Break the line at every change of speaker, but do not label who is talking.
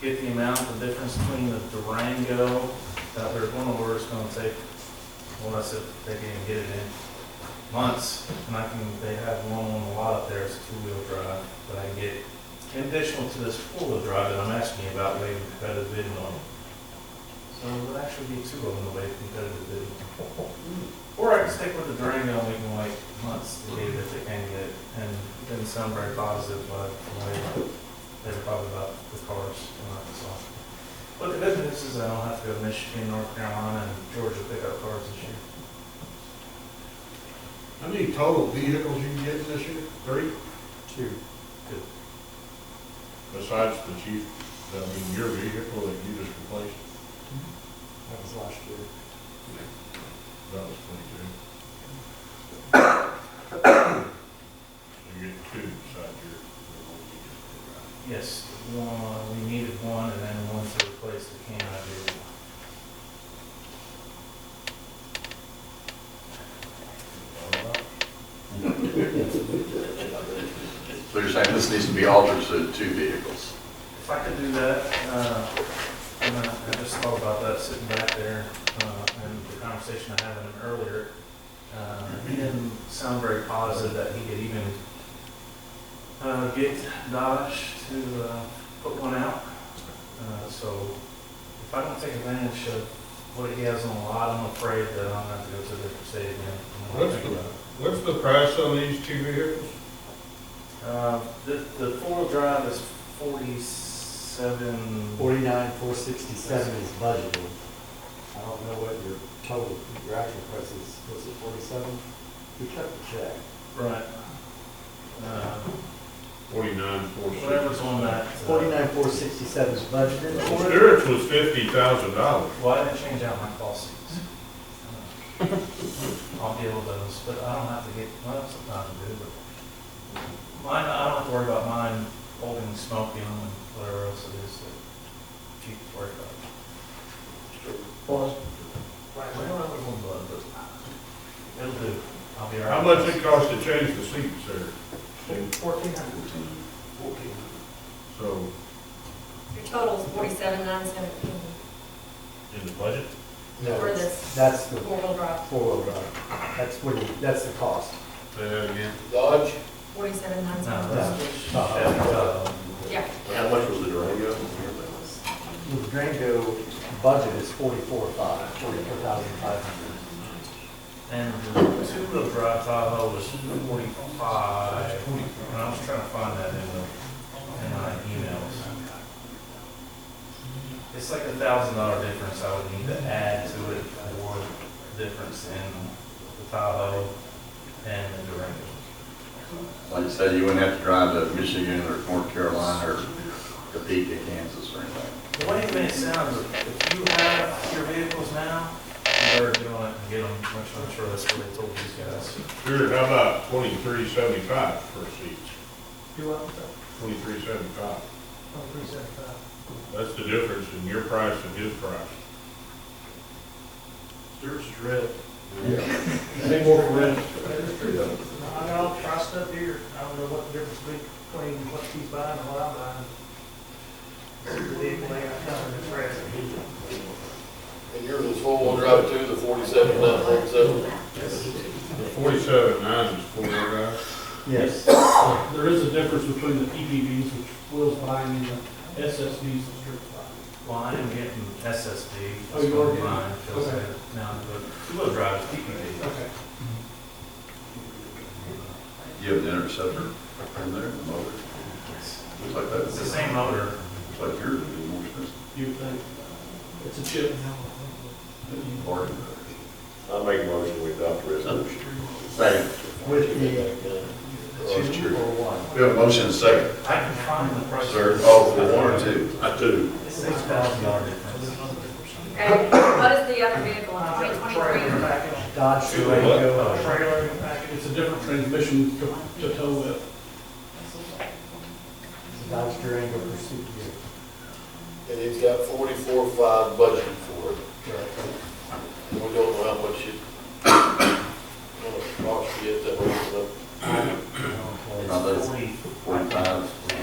get the amount, the difference between the Durango, that there's one order, it's gonna take, unless if they can even get it in months, and I can, they have one on the lot up there, it's a two-wheel drive, but I can get conditional to this four-wheel drive that I'm asking you about, way competitive bidding on. So it would actually be two of them, the way competitive bidding. Or I can stick with the Durango, and we can wait months to get it if they can get it, and it didn't sound very positive, but like, they're probably about the cars in Arkansas. But the good news is I don't have to go to Michigan, North Carolina, and Georgia to pick up cars this year.
How many total vehicles you can get this year? Three?
Two.
Besides the chief, I mean, your vehicle that you just replaced,
That was last year.
that was twenty-two. So You get two besides your.
Yes, one, we needed one, and then one to replace the can I vehicle.
So you're saying this needs to be altered to two vehicles?
If I could do that, uh, and I I just thought about that sitting back there, uh, and the conversation I had with him earlier, uh, he didn't sound very positive that he could even, uh, get Dodge to, uh, put one out. Uh, so if I don't take advantage of what he has on the lot, I'm afraid that I'm gonna have to go to a different state again. I'm not
What's
thinking
the,
about it.
what's the price on these two vehicles?
Uh, the, the four-wheel drive is forty-seven.
Forty-nine, four sixty-seven is budgeted. I don't know what your total, your actual price is, was it forty-seven? We kept the check.
Right. Uh,
Forty-nine, four sixty.
Whatever's on that. uh,
Forty-nine, four sixty-seven is budgeted for it.
Stewart's was fifty thousand dollars.
Well, I didn't change out my call seats. I'll deal with those, but I don't have to get, well, that's not to do, but mine, I don't have to worry about mine holding smoke in and whatever else it is that you can worry about.
Well,
Right, I don't have a little blood, but it'll do. I'll be all right.
How much it cost to change the seats there?
Fourteen hundred.
So,
Your total is forty-seven, nine seventeen
in the budget?
No,
for this
that's the
four-wheel drive,
four-wheel drive. That's what you, that's the cost.
Say that again.
Dodge?
forty-seven, nine
No,
seventeen.
that's.
Uh,
Chevy Tahoe.
Yeah,
How much was the Durango?
The Durango budget is forty-four five, forty-four thousand five hundred.
And the two-wheel drive Tahoe was forty-five, and I was trying to find that in the, in my emails. It's like a thousand dollar difference I would need to add to it for the difference in the Tahoe and the Durango.
Like you said, you wouldn't have to drive to Michigan or North Carolina or Topeka, Kansas or anything.
The way it may sound, if you have your vehicles now, you better do it and get them, which I'm sure that's what they told these guys.
Sure, how about twenty-three seventy-five for seats?
Do what?
Twenty-three seventy-five.
Oh, three seventy-five.
That's the difference in your price and his price.
Yours is red.
Any more for rent?
I got all priced up here. I don't know what the difference be- between what he's buying and what I'm buying. It's the vehicle they got coming to press.
And yours is four-wheel drive too, the forty-seven, nine forty-seven?
The forty-seven nine is four-wheel drive.
Yes.
There is a difference between the PPVs, which Will's buying, and the SSVs that Stuart's buying.
Well, I am getting SSD.
Oh, you are getting-
Mine, feels
okay.
better Now, but two-wheel drive is PPV.
Okay.
You have an interceptor in there, a motor. Looks like that.
It's the same motor.
Looks like yours would be more expensive.
You think, it's a chip.
Bargain.
I make a motion we adopt the resolution.
Second.
With the two or one?
We have a motion and a second.
I can find the price.
Sir, oh, for one or two? I do.
It's six thousand dollar difference.
okay, what is the other vehicle in
I
twenty
think
twenty-three?
trailer package,
Dodge
Two and what?
Durango.
trailer package,
It's a different transmission to to tow with.
Dodge Durango Pursuit Gear.
And he's got forty-four, five budget for it. We don't know how much it, how much cost yet, that was,
Not
It's
that-
forty,
Forty-five.